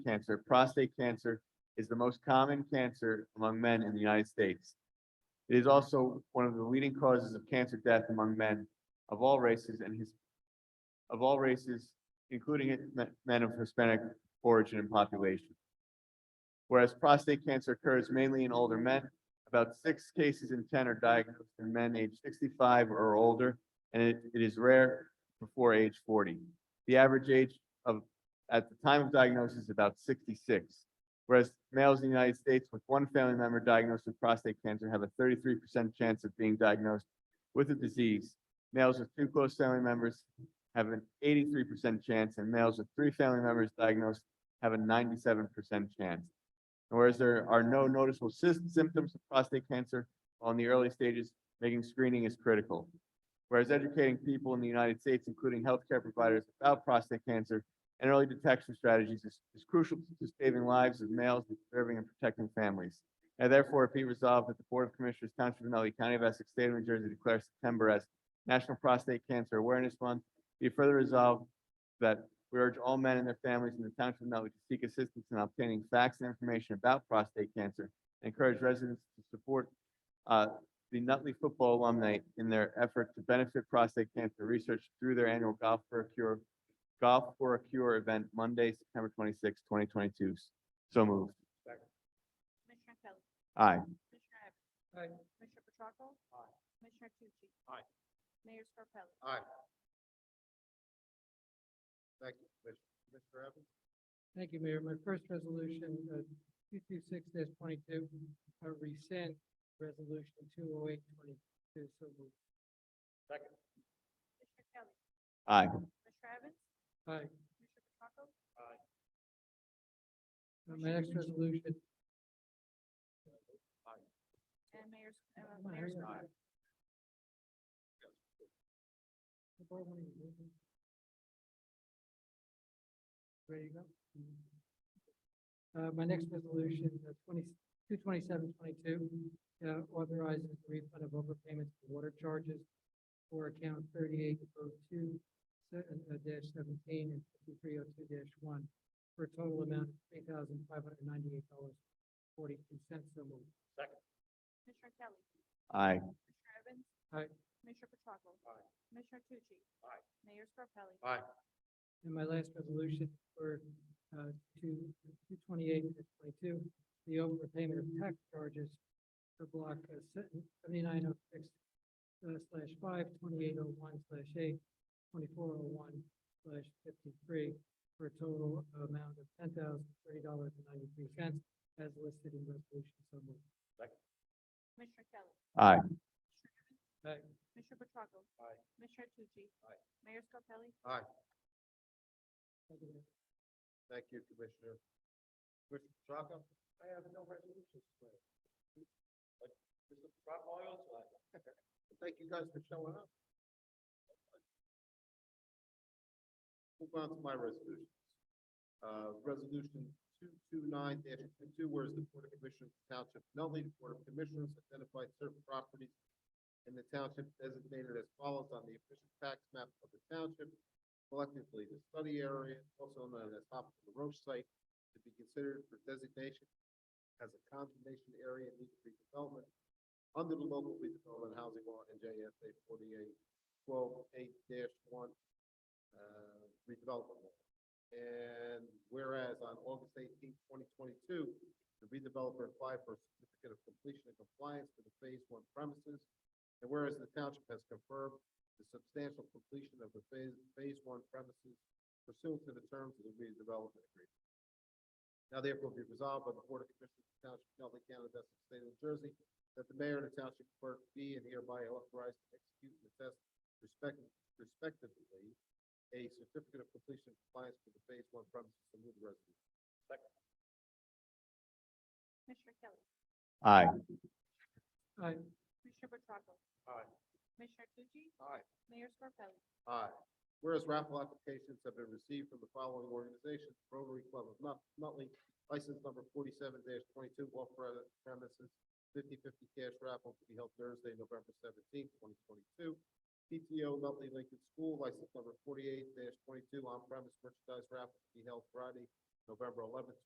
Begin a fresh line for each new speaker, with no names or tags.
cancer, prostate cancer is the most common cancer among men in the United States. It is also one of the leading causes of cancer death among men of all races and his, of all races, including men of Hispanic origin and population. Whereas prostate cancer occurs mainly in older men, about six cases in ten are diagnosed in men aged sixty-five or older, and it, it is rare before age forty. The average age of, at the time of diagnosis is about sixty-six. Whereas males in the United States with one family member diagnosed with prostate cancer have a thirty-three percent chance of being diagnosed with the disease. Males with two close family members have an eighty-three percent chance, and males with three family members diagnosed have a ninety-seven percent chance. And Whereas there are no noticeable sys- symptoms of prostate cancer on the early stages, making screening is critical. Whereas educating people in the United States, including healthcare providers about prostate cancer and early detection strategies is, is crucial to saving lives of males and preserving and protecting families. Now therefore be resolved that the Board of Commissioners Township of Nutley County of Essex State of New Jersey declares September as National Prostate Cancer Awareness Month. Be further resolved that we urge all men and their families in the township of Nutley to seek assistance in obtaining facts and information about prostate cancer. and Encourage residents to support uh, the Nutley football alumni in their effort to benefit prostate cancer research through their annual Golf for a Cure, Golf for a Cure event Monday, September 26, twenty twenty-two. So moved.
Commissioner Kelly.
Aye.
Commissioner Evans.
Aye.
Commissioner Petracca.
Aye.
Commissioner Tucci.
Aye.
Mayor Scarpelli.
Aye. Thank you, Commissioner. Commissioner Evans?
Thank you, Mayor. My first resolution, uh, two-two-six twenty-two, uh, rescind resolution two-oh-eight-twenty-two, so moved.
Second.
Commissioner Kelly.
Aye.
Commissioner Evans.
Aye.
Commissioner Petracca.
Aye.
Uh, My next resolution,
And Mayor, S- uh,
Come on,
Mayor
hurry up.
Scarpelli.
the board wanted to move it. There you go. Mm-hmm. Uh, my next resolution, uh, twenty, two twenty-seven twenty-two, uh, authorizes the refund of overpayments for water charges for account thirty-eight oh two, uh, dash seventeen and fifty-three oh two dash one, for a total amount of three thousand five hundred ninety-eight dollars forty-two cents, so moved.
Commissioner Kelly.
Aye.
Commissioner Evans.
Aye.
Commissioner Petracca.
Aye.
Commissioner Tucci.
Aye.
Mayor Scarpelli.
Aye.
And my last resolution for uh, two, two twenty-eight, twenty-two, the overpayment of tax charges for block uh, se- seventy-nine oh six uh, slash five, twenty-eight oh one slash eight, twenty-four oh one slash fifty-three, for a total amount of ten thousand thirty dollars and ninety-three cents, as listed in resolution so moved.
Commissioner Kelly.
Aye.
Commissioner Evans.
Aye.
Commissioner Petracca.
Aye.
Commissioner Tucci.
Aye.
Mayor Scarpelli.
Aye.
Thank you, Mayor.
Thank you, Commissioner. Commissioner Petracca? I have no resolutions today. But Mr. Petracca, I also have. Thank you guys for showing up. Move on to my resolutions. Uh, resolution two-two-nine dash two-two, whereas the Board of Commissioners of the Township of Nutley, the Board of Commissioners identified certain properties in the township designated as follows on the official tax map of the township collectively the study area, also known as top of the Roche site, to be considered for designation as a condemnation area in need of redevelopment under the local redevelopment housing law and JSA forty-eight twelve eight one, uh, redevelopment law. And whereas on August 18, twenty twenty-two, the redeveloper applied for a certificate of completion and compliance for the phase one premises. And whereas the township has confirmed the substantial completion of the phase, phase one premises pursuant to the terms of the redevelopment agreement. Now therefore be resolved by the Board of Commissioners of the Township of Nutley County, of Essex State, of New Jersey, that the mayor and the township clerk be and hereby authorized to execute and attest respectively, respectively, a certificate of completion and compliance for the phase one premises and move the resolution.
Commissioner Kelly.
Aye.
Aye.
Commissioner Petracca.
Aye.
Commissioner Tucci.
Aye.
Mayor Scarpelli.
Aye. Whereas raffle applications have been received from the following organizations, Rotary Club of Nut- Nutley, license number forty-seven twenty-two, off pre- premises, 50-50 cash raffle to be held Thursday, November seventeenth, twenty twenty-two. PTO Nutley Lincoln School, license number forty-eight twenty-two, on premise merchandise raffle to be held Friday, November eleventh,